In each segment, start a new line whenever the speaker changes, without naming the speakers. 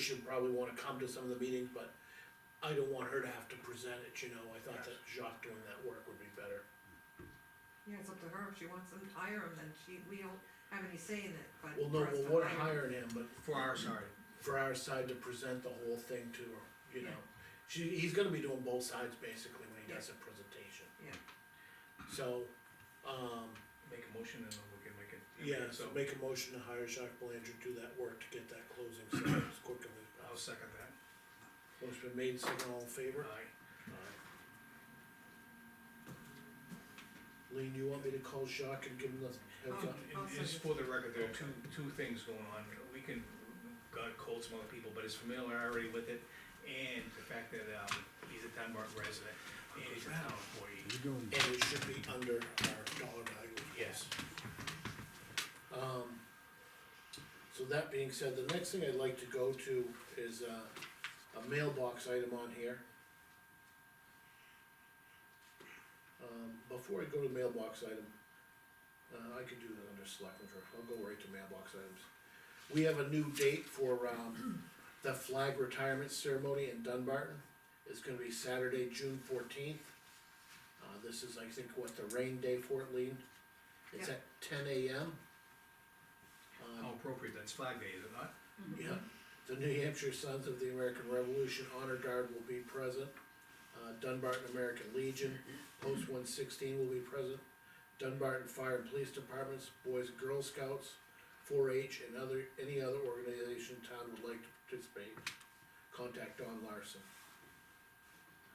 should probably wanna come to some of the meetings, but I don't want her to have to present it, you know, I thought that Jacques doing that work would be better.
Yeah, it's up to her, if she wants to hire him, then she, we don't have any say in it, but.
Well, no,
for us to
well, we're
hire-
hiring him, but
for our side.
for our side to present the whole thing to her, you know? She, he's gonna be doing both sides basically when he does a presentation.
Yeah.
So, um,
Make a motion and then we can make it.
yeah, so
So
make a motion to hire Jacques Belanger to do that work to get that closing set as quickly as
I'll
possible.
second that. Uh,
Motion been made, second all in favor?
Aye.
Aye. Lean, you want me to call Jacques and give him the heads
Oh.
up?
I'll
And just
second.
for the record, there are two, two things going on. We can, got cold some other people, but his familiarity with it and the fact that, um, he's a town resident and he's a town employee.
Mm-hmm.
He's doing,
And it should be under our dollar value.
Yes.
Um, so that being said, the next thing I'd like to go to is uh, a mailbox item on here. Um, before I go to mailbox item, uh, I could do that under selectmen, for- I'll go right to mailbox items. We have a new date for, um, the flag retirement ceremony in Dunbarton, it's gonna be Saturday, June fourteenth. Uh, this is, I think, what, the rain day for it, Lean? It's
Yeah.
at ten AM. Um,
How appropriate, that's Flag Day, is it not?
yeah, the New Hampshire Sons of the American Revolution Honor Guard will be present. Uh, Dunbarton American Legion, Post one sixteen will be present. Dunbarton Fire and Police Departments, Boys and Girl Scouts, four H and other, any other organization town would like to participate. Contact Don Larson.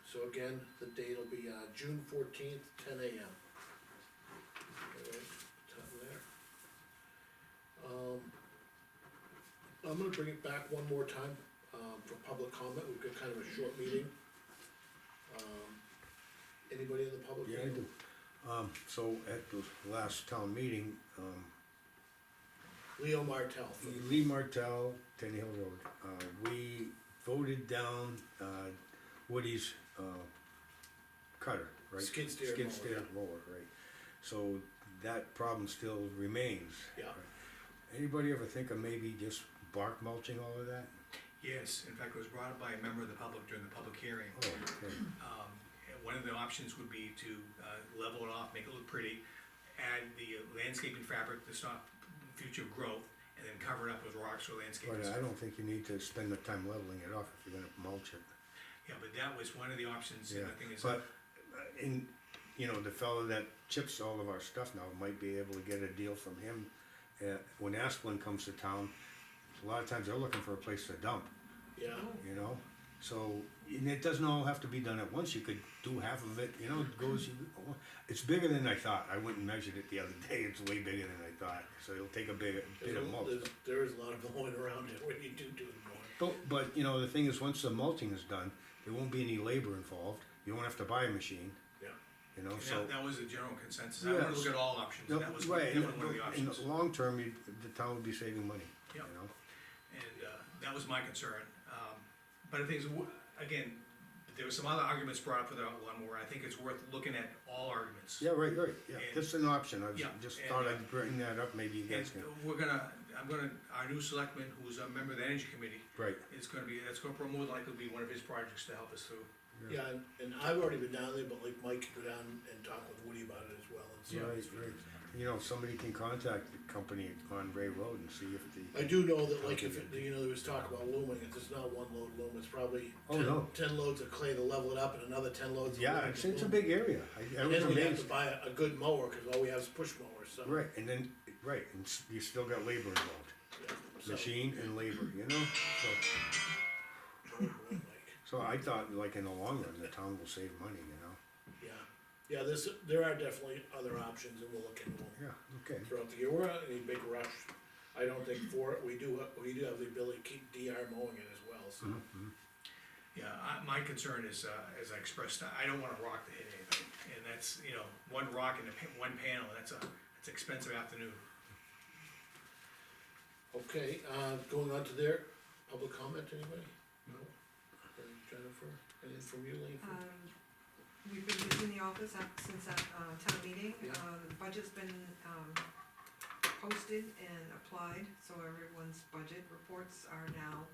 So again, the date will be, uh, June fourteenth, ten AM. All right, top of there. Um, I'm gonna bring it back one more time, um, for public comment, we've got kind of a short meeting. Um, Anybody in the public?
yeah, I do. Um, so at the last town meeting, um,
Leo Martell, from-
Lee Martell, Ten Hill Road, uh, we voted down, uh, Woody's, uh, cutter, right?
Skid steer mower,
Skid steer mower, right. So that problem still remains.
yeah,
Anybody ever think of maybe just bark mulching all of that?
Yes, in fact, it was brought up by a member of the public during the public hearing.
Oh, okay.
Um, and one of the options would be to, uh, level it off, make it look pretty, add the landscaping fabric to stop future growth, and then cover it up with rocks or landscaping.
But Oh, I don't think you need to spend the time leveling it off if you're gonna mulch it.
Yeah, but that was one of the options,
Yeah,
and I think it's,
but, uh, in, you know, the fellow that chips all of our stuff now might be able to get a deal from him. Uh, when Asplin comes to town, a lot of times they're looking for a place to dump,
yeah,
you know? So, and it doesn't all have to be done at once, you could do half of it, you know, it goes, it's bigger than I thought. I went and measured it the other day, it's way bigger than I thought, so it'll take a big, bit of mulch.
there's, there is a lot of going around it when you do do the mowing.
But, but, you know, the thing is, once the mulching is done, there won't be any labor involved, you won't have to buy a machine,
yeah.
you know,
and
so.
that, that was the general consensus, I wanna
Yes.
look at all options,
No,
that was
right,
definitely one of the
in
options.
the long term, you, the town would be saving money, you
Yeah.
know?
And uh, that was my concern. Um, But the thing is, w- again, there were some other arguments brought up for that one where I think it's worth looking at all arguments.
Yeah, right, right, yeah,
And-
that's an option, I was-
Yeah,
just
and,
thought
uh,
I'd bring that up, maybe you
And
guys can,
we're gonna, I'm gonna, our new selectman, who's a member of the energy committee,
right,
is gonna be, that's gonna more likely be one of his projects to help us through.
Yeah, and, and I've already been down there, but like Mike could go down and talk with Woody about it as well, and see.
right,
how
right.
he's-
You know, somebody can contact the company on Ray Road and see if the,
I do know that like if, it- you know, there was talk about looming, if it's not one load loom, it's probably
Oh,
ten,
no.
ten loads of clay to level it up and another ten loads. of
yeah,
loom
it's,
to
it's a
loom.
big area, I, I was
Then we have to
amazed.
buy a, a good mower, cause all we have is push mowers, so.
Right, and then, right, and s- you still got labor involved,
yeah, so-
machine and labor, you know? So,
Oh, boy, Mike.
so I thought, like, in the long run, the town will save money, you know?
Yeah, yeah, this, there are definitely other options and we'll look into them
Yeah, okay,
throughout the year, we're not in any big rush. I don't think for it, we do, we do have the ability to keep DR mowing it as well, so,
Yeah, I, my concern is, uh, as I expressed, I don't want a rock to hit anything. And that's, you know, one rock in a, pa- one panel, that's a, that's expensive afternoon.
okay, uh, going on to there, public comment, anybody? No? And Jennifer, anything from you, Lean? from-
Um, we've been using the office up since that, uh, town meeting,
Yeah.
uh, the budget's been, um, posted and applied, so everyone's budget reports are now